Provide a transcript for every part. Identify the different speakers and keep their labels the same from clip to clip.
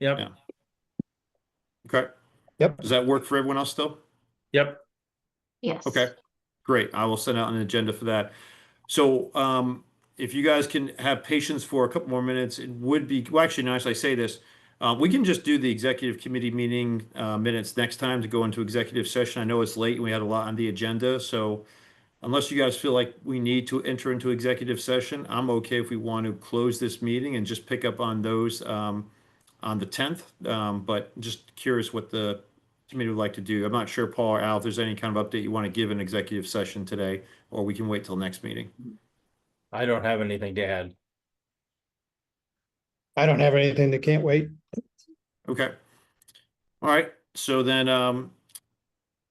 Speaker 1: Yep.
Speaker 2: Yeah. Okay.
Speaker 3: Yep.
Speaker 2: Does that work for everyone else still?
Speaker 1: Yep.
Speaker 4: Yes.
Speaker 2: Okay, great. I will send out an agenda for that. So um, if you guys can have patience for a couple more minutes, it would be, well, actually, now as I say this, uh, we can just do the executive committee meeting uh, minutes next time to go into executive session. I know it's late and we had a lot on the agenda, so unless you guys feel like we need to enter into executive session, I'm okay if we want to close this meeting and just pick up on those um, on the 10th. Um, But just curious what the committee would like to do. I'm not sure, Paul or Al, if there's any kind of update you want to give in executive session today, or we can wait till next meeting.
Speaker 5: I don't have anything to add.
Speaker 3: I don't have anything that can't wait.
Speaker 2: Okay. All right, so then, um,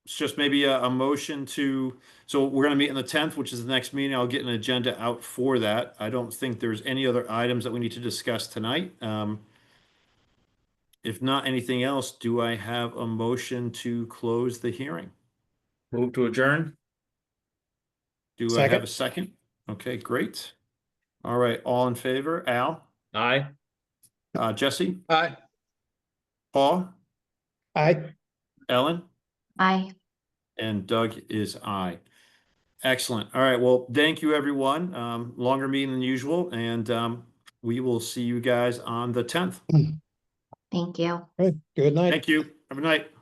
Speaker 2: it's just maybe a, a motion to, so we're gonna meet on the tenth, which is the next meeting. I'll get an agenda out for that. I don't think there's any other items that we need to discuss tonight. Um, if not anything else, do I have a motion to close the hearing?
Speaker 1: Move to adjourn.
Speaker 2: Do I have
Speaker 3: Second.
Speaker 2: a second? Okay, great. All right, all in favor? Al?
Speaker 1: Aye.
Speaker 2: Uh, Jesse,
Speaker 5: Aye.
Speaker 2: Paul,
Speaker 3: I,
Speaker 2: Ellen,
Speaker 4: Bye.
Speaker 2: and Doug is I. Excellent. All right. Well, thank you, everyone. Um, longer meeting than usual, and um, we will see you guys on the tenth.
Speaker 4: Thank you.
Speaker 3: good night.
Speaker 2: Thank you. Have a good night.